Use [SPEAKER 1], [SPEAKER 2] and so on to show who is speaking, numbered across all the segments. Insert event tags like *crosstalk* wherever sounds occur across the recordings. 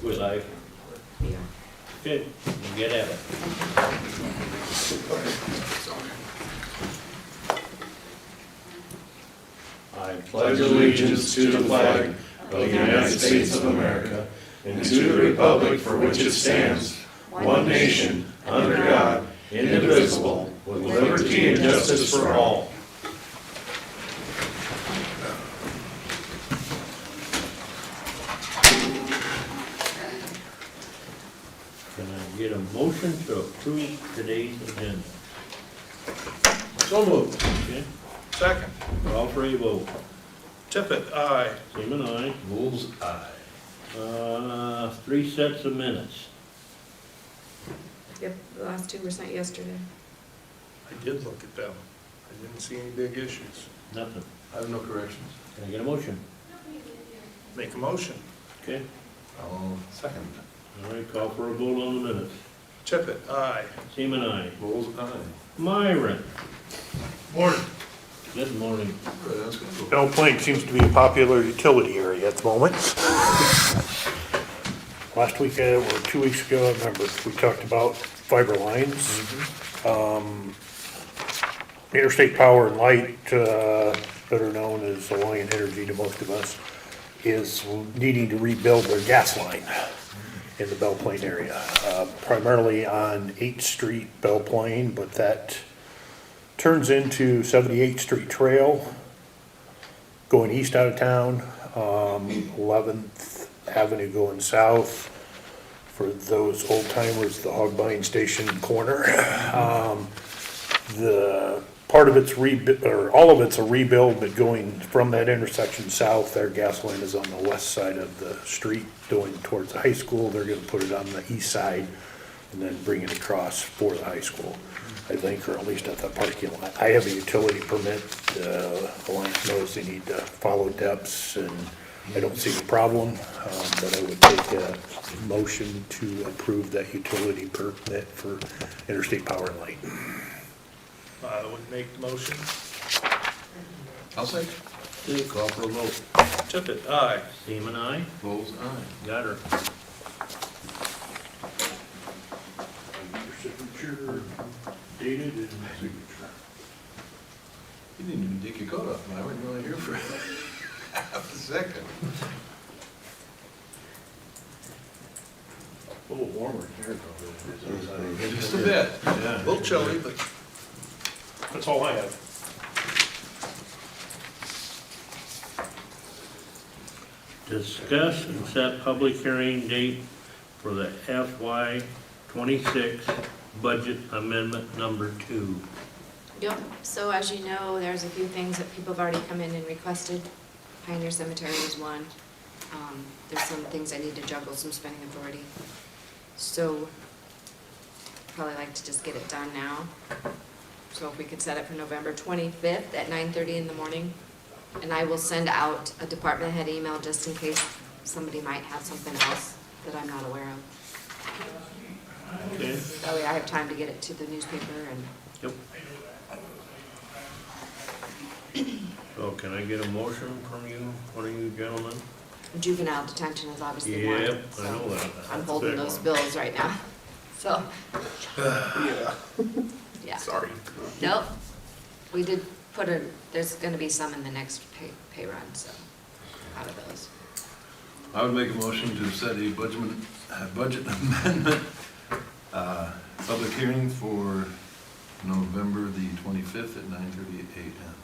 [SPEAKER 1] We're live.
[SPEAKER 2] We are.
[SPEAKER 1] Good. We'll Get at it.
[SPEAKER 3] I pledge allegiance to the flag of the United States of America and to the republic for which it stands, one nation, under God, indivisible, with liberty and justice for all.
[SPEAKER 1] Can I get a motion to approve today's agenda?
[SPEAKER 4] So moved.
[SPEAKER 1] Okay,
[SPEAKER 4] Second.
[SPEAKER 1] call for a vote.
[SPEAKER 4] Tippit, aye.
[SPEAKER 1] Seaman, aye.
[SPEAKER 3] Bulls eye.
[SPEAKER 1] Uh, three sets of minutes.
[SPEAKER 2] Yep, the last two were sent yesterday.
[SPEAKER 4] I did look at them. I didn't see any big issues.
[SPEAKER 1] Nothing.
[SPEAKER 3] I have no corrections.
[SPEAKER 1] Can I get a motion?
[SPEAKER 4] Make a motion.
[SPEAKER 1] Okay,
[SPEAKER 3] I'll second.
[SPEAKER 1] all right, call for a vote on the minutes.
[SPEAKER 4] Tippit, aye.
[SPEAKER 1] Seaman, aye.
[SPEAKER 3] Bulls eye.
[SPEAKER 1] Myron,
[SPEAKER 5] Morning.
[SPEAKER 1] good morning.
[SPEAKER 5] Bell Plain seems to be a popular utility area at the moment. Last week, uh, or two weeks ago, I remember, we talked about fiber lines. Um, Interstate Power and Light, uh, better known as Alliant Energy to most of us, is needing to rebuild their gas line in the Bell Plain area, uh, primarily on 8th Street, Bell Plain, but that turns into 78th Street Trail going east out of town, um, 11th Avenue going south. For those old timers, the hog buying station corner. *laughs* Um, The, part of it's rebu, or all of it's a rebuild, but going from that intersection south, their gas line is on the west side of the street going towards the high school. They're gonna put it on the east side and then bring it across for the high school, I think, or at least at the parking lot. I have a utility permit, uh, Alliance knows they need to follow depths, and I don't see the problem, um, but I would take a motion to approve that utility permit for Interstate Power and Light.
[SPEAKER 4] I would make the motion.
[SPEAKER 3] I'll second.
[SPEAKER 1] Okay, call for a vote.
[SPEAKER 4] Tippit, aye.
[SPEAKER 1] Seaman, aye.
[SPEAKER 3] Bulls eye.
[SPEAKER 1] Got her. Dated and signature.
[SPEAKER 3] You didn't even dig your coat off, and I wasn't really here for *laughs* half a second.
[SPEAKER 1] A little warmer.
[SPEAKER 3] Just a bit.
[SPEAKER 4] A little chilly, but
[SPEAKER 5] That's all I have.
[SPEAKER 1] Discuss and set public hearing date for the FY twenty-six budget amendment number two.
[SPEAKER 2] Yep, so as you know, there's a few things that people have already come in and requested. Pioneer Cemetery is one. Um, There's some things I need to juggle, some spending authority. So probably like to just get it done now. So if we could set it for November 25th at 9:30 in the morning. And I will send out a department head email just in case somebody might have something else that I'm not aware of.
[SPEAKER 1] Okay?
[SPEAKER 2] That way I have time to get it to the newspaper and
[SPEAKER 1] Yep. So can I get a motion from you, one of you gentlemen?
[SPEAKER 2] Juvenile detention is obviously one.
[SPEAKER 1] Yep, I
[SPEAKER 2] so
[SPEAKER 1] know that.
[SPEAKER 2] I'm holding those bills right now,
[SPEAKER 1] *sighs*
[SPEAKER 2] so,
[SPEAKER 4] yeah,
[SPEAKER 2] yeah.
[SPEAKER 4] sorry.
[SPEAKER 2] Nope, we did put a, there's gonna be some in the next pay, pay run, so, out of those.
[SPEAKER 3] I would make a motion to set a budget, a budget amendment, uh, public hearing for November the twenty-fifth at nine thirty-eight AM.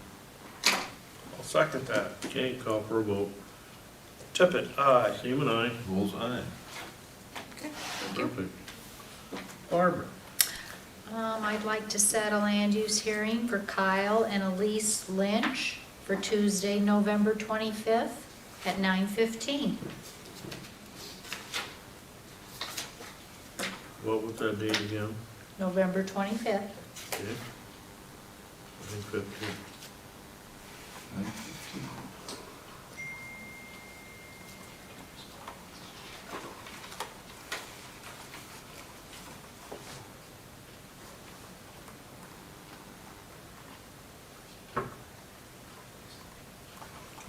[SPEAKER 4] I'll second that.
[SPEAKER 1] Okay, call for a vote.
[SPEAKER 4] Tippit, aye.
[SPEAKER 1] Seaman, aye.
[SPEAKER 3] Bull's eye.
[SPEAKER 2] Okay, thank you.
[SPEAKER 1] Perfect. Barbara?
[SPEAKER 6] Um, I'd like to set a land use hearing for Kyle and Elise Lynch for Tuesday, November 25th at 9:15.
[SPEAKER 1] What was that date again?
[SPEAKER 6] November 25th.
[SPEAKER 1] Okay. Nine fifteen.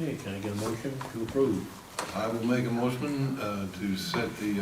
[SPEAKER 1] Okay, can I get a motion to approve?
[SPEAKER 3] I will make a motion, uh, to set the